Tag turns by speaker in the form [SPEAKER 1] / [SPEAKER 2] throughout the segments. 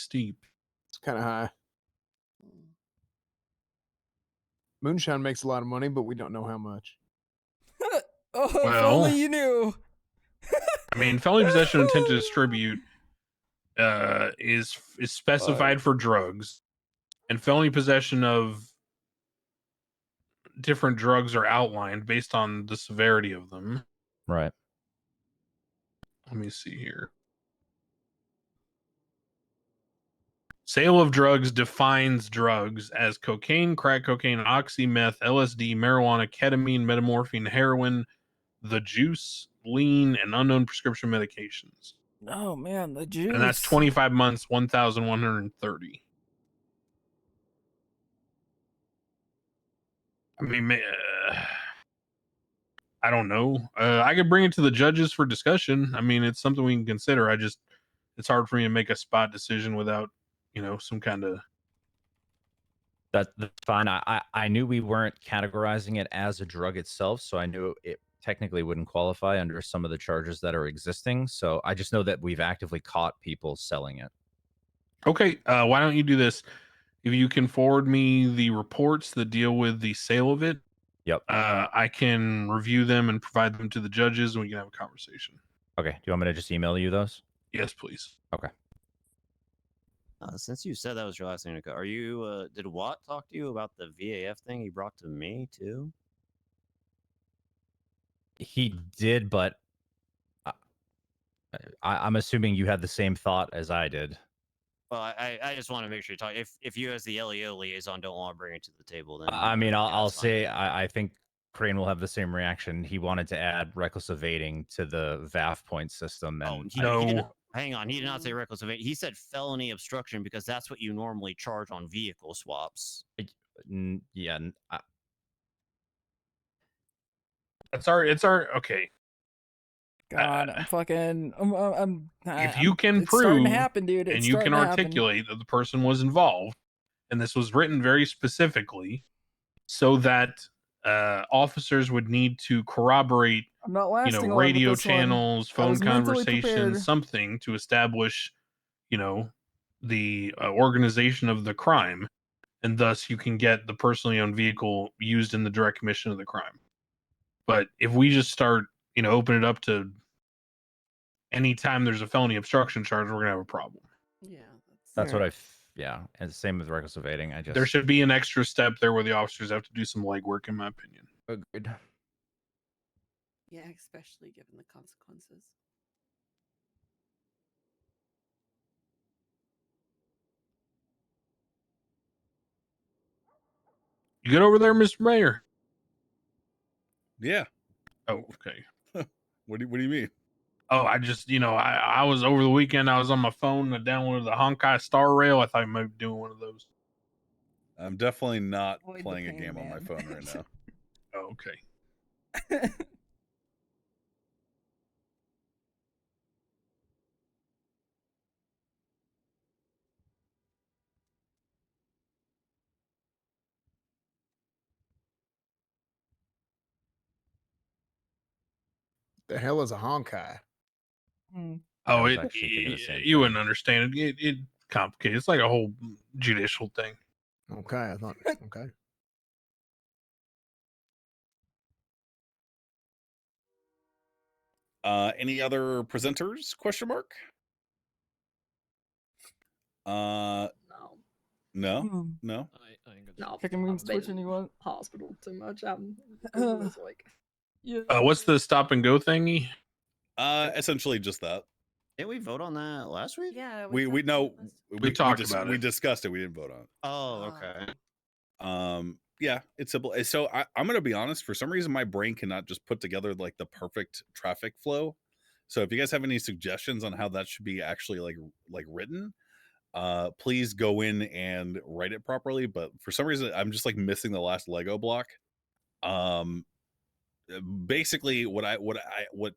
[SPEAKER 1] steep.
[SPEAKER 2] It's kind of high. Mm. Moonshine makes a lot of money, but we don't know how much.
[SPEAKER 3] Oh, if
[SPEAKER 1] Well.
[SPEAKER 3] only you knew.
[SPEAKER 1] I mean, felony possession intent to distribute uh, is is specified for drugs, and felony possession of different drugs are outlined based on the severity of them.
[SPEAKER 4] Right.
[SPEAKER 1] Let me see here. Sale of drugs defines drugs as cocaine, crack cocaine, oxy meth, LSD, marijuana, ketamine, metamorphine, heroin, the juice, lean, and unknown prescription medications.
[SPEAKER 3] Oh man, the juice.
[SPEAKER 1] And that's 25 months, 1,130. I mean, ma- uh, I don't know. Uh, I could bring it to the judges for discussion. I mean, it's something we can consider. I just, it's hard for me to make a spot decision without, you know, some kind of.
[SPEAKER 4] That, that's fine. I, I I knew we weren't categorizing it as a drug itself, so I knew it technically wouldn't qualify under some of the charges that are existing. So I just know that we've actively caught people selling it.
[SPEAKER 1] Okay, uh, why don't you do this? If you can forward me the reports that deal with the sale of it,
[SPEAKER 4] Yep.
[SPEAKER 1] uh, I can review them and provide them to the judges, and we can have a conversation.
[SPEAKER 4] Okay. Do you want me to just email you those?
[SPEAKER 1] Yes, please.
[SPEAKER 5] Uh, since you said that was your last name, Nicole, are you? Uh, did Watt talk to you about the VAF thing he brought to me too?
[SPEAKER 4] He did, but I, I, I'm assuming you had the same thought as I did.
[SPEAKER 5] Well, I, I I just want to make sure you talk. If if you as the LEO liaison don't want to bring it to the table, then
[SPEAKER 4] I I mean, I'll,
[SPEAKER 5] yeah,
[SPEAKER 4] I'll
[SPEAKER 5] it's fine.
[SPEAKER 4] say I, I think Crane will have the same reaction. He wanted to add reckless evading to the VAF point system,
[SPEAKER 5] Oh,
[SPEAKER 4] and
[SPEAKER 5] he,
[SPEAKER 1] no.
[SPEAKER 5] he did not- hang on, he did
[SPEAKER 6] Mm-hmm.
[SPEAKER 5] not say reckless evasion. He said felony obstruction because that's what you normally charge on vehicle swaps.
[SPEAKER 4] uh, n- yeah, n- I,
[SPEAKER 1] It's our. It's our. Okay.
[SPEAKER 3] God, I'm fucking. I'm. I'm, I'm
[SPEAKER 1] if
[SPEAKER 3] I'm-
[SPEAKER 1] you can
[SPEAKER 3] it's starting
[SPEAKER 1] prove
[SPEAKER 3] to happen, dude. It's
[SPEAKER 1] and you
[SPEAKER 3] starting
[SPEAKER 1] can
[SPEAKER 3] to happen.
[SPEAKER 1] articulate that the person was involved and this was written very specifically so that uh, officers would need to corroborate
[SPEAKER 3] I'm not
[SPEAKER 1] you
[SPEAKER 3] lasting
[SPEAKER 1] know
[SPEAKER 3] long with
[SPEAKER 1] radio
[SPEAKER 3] this one.
[SPEAKER 1] channels
[SPEAKER 3] I
[SPEAKER 1] phone
[SPEAKER 3] was mentally prepared.
[SPEAKER 1] conversations something to establish you know the uh, organization of the crime and thus you can get the personally owned vehicle used in the direct commission of the crime but if we just start you know open it up to anytime there's a felony obstruction charge we're gonna have a problem
[SPEAKER 7] Yeah.
[SPEAKER 4] that's what I. f- Yeah, and same with reckless evading. I just
[SPEAKER 1] There should be an extra step there where the officers have to do some legwork, in my opinion.
[SPEAKER 4] agreed.
[SPEAKER 7] Yeah, especially given the consequences.
[SPEAKER 1] You get over there, Mr. Mayor.
[SPEAKER 8] Yeah.
[SPEAKER 1] Oh, okay.
[SPEAKER 8] What do you, What do you mean?
[SPEAKER 1] Oh, I just, you know, I, I was over the weekend. I was on my phone. I downloaded the Honkai Star Rail. I thought I might be doing one of those.
[SPEAKER 8] I'm definitely not
[SPEAKER 7] Avoid the
[SPEAKER 8] playing a
[SPEAKER 7] pain,
[SPEAKER 8] game on my
[SPEAKER 7] man.
[SPEAKER 8] phone right now.
[SPEAKER 1] Oh, okay.
[SPEAKER 2] The hell is a honkai?
[SPEAKER 3] Mm.
[SPEAKER 1] Oh,
[SPEAKER 4] was
[SPEAKER 1] it,
[SPEAKER 4] actually thinking the
[SPEAKER 1] y-
[SPEAKER 4] same
[SPEAKER 1] you wouldn't understand it. it. It complicated. It's like a whole judicial thing.
[SPEAKER 2] Okay, I thought okay.
[SPEAKER 8] Uh, any other presenters? Question mark. Uh,
[SPEAKER 7] No, Hmm.
[SPEAKER 8] no,
[SPEAKER 3] Mm.
[SPEAKER 8] no.
[SPEAKER 6] I, I ain't gonna
[SPEAKER 7] no.
[SPEAKER 3] Pick and move
[SPEAKER 7] I've been
[SPEAKER 3] switch and you want.
[SPEAKER 7] hospital too much. I'm this week.
[SPEAKER 3] Yeah.
[SPEAKER 1] Uh, what's the stop and go thingy?
[SPEAKER 8] Uh, essentially just that.
[SPEAKER 5] Did we vote on that last week?
[SPEAKER 7] Yeah.
[SPEAKER 8] We we
[SPEAKER 7] talked
[SPEAKER 8] know
[SPEAKER 7] about this.
[SPEAKER 1] talked
[SPEAKER 8] dis-
[SPEAKER 1] about
[SPEAKER 8] We
[SPEAKER 1] it. Uh
[SPEAKER 8] discussed it. We didn't vote on. it.
[SPEAKER 5] Oh,
[SPEAKER 6] Uh,
[SPEAKER 7] Ah.
[SPEAKER 5] okay.
[SPEAKER 8] um yeah it's simple Uh, so I, i'm gonna be honest for some reason my brain cannot just put together like the perfect traffic flow so if you guys have any suggestions on how that should be actually like w- like written uh please go in and write it properly but for some reason i'm just like missing the last lego block um uh, basically what i what i what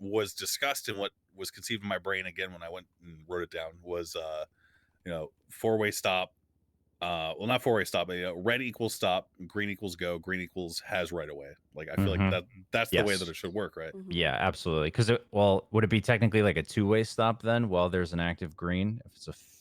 [SPEAKER 8] was discussed and what was conceived in my brain again when i went and wrote it down was uh you know four way stop uh well not four way stop but you know, red equals stop green equals go green equals has right away like i feel
[SPEAKER 4] Mhm.
[SPEAKER 8] like that that's the way that
[SPEAKER 4] Yes.
[SPEAKER 8] it should work right
[SPEAKER 7] Mhm.
[SPEAKER 4] Yeah, absolutely. Because well, would it be technically like a two-way stop then? While there's an active green, if it's a